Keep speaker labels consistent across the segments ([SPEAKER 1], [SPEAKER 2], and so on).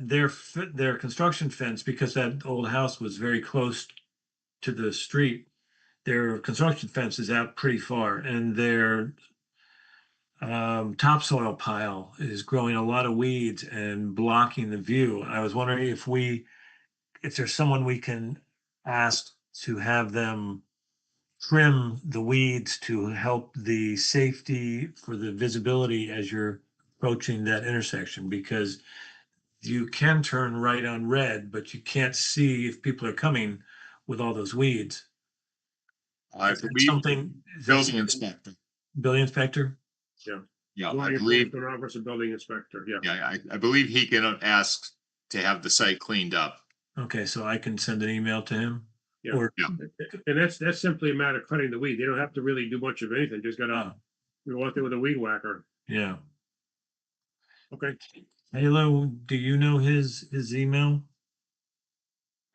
[SPEAKER 1] their, fe- their construction fence, because that old house was very close to the street, their construction fence is out pretty far and their um, topsoil pile is growing a lot of weeds and blocking the view. I was wondering if we, if there's someone we can ask to have them trim the weeds to help the safety for the visibility as you're approaching that intersection because you can turn right on red, but you can't see if people are coming with all those weeds.
[SPEAKER 2] I
[SPEAKER 1] Is that
[SPEAKER 2] believe
[SPEAKER 1] Something. is that
[SPEAKER 2] building
[SPEAKER 1] something-
[SPEAKER 2] inspector.
[SPEAKER 1] Building inspector?
[SPEAKER 2] Yeah,
[SPEAKER 3] Law
[SPEAKER 2] I believe,
[SPEAKER 3] enforcement officer, building inspector, yeah.
[SPEAKER 2] yeah, I, I believe he can ask to have the site cleaned up.
[SPEAKER 1] Okay, so I can send an email to him?
[SPEAKER 3] Yeah.
[SPEAKER 1] Or,
[SPEAKER 3] And that's, that's simply a matter of cutting the weed. They don't have to really do much of anything. Just gotta,
[SPEAKER 1] Oh.
[SPEAKER 3] you go out there with a weed whacker.
[SPEAKER 1] yeah.
[SPEAKER 3] Okay,
[SPEAKER 1] Halo, do you know his, his email?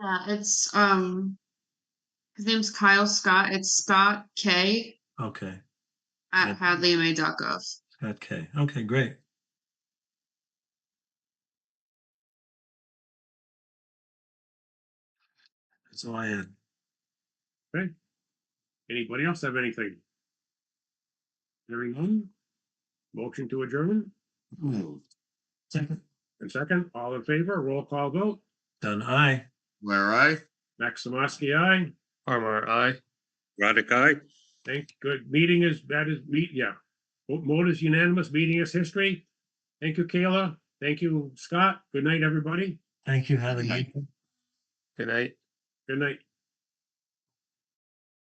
[SPEAKER 4] Yeah, it's, um, his name's Kyle Scott. It's Scott K
[SPEAKER 1] Okay,
[SPEAKER 4] at hadleyma.gov.
[SPEAKER 1] okay, okay, great. That's all I had.
[SPEAKER 3] anybody else have anything? Hearing none? Motion to adjourn?
[SPEAKER 1] Second.
[SPEAKER 3] And second, all in favor, roll call vote.
[SPEAKER 1] Done, aye.
[SPEAKER 2] Where I?
[SPEAKER 3] Maximowski, aye.
[SPEAKER 5] Armour, aye. Raddick, aye.
[SPEAKER 3] Thank, good. Meeting is, that is, meet, yeah. Vote vote is unanimous. Meeting is history. Thank you, Kayla. Thank you, Scott. Good night, everybody.
[SPEAKER 1] Thank you, Hadley.
[SPEAKER 5] Good night.
[SPEAKER 3] Good night.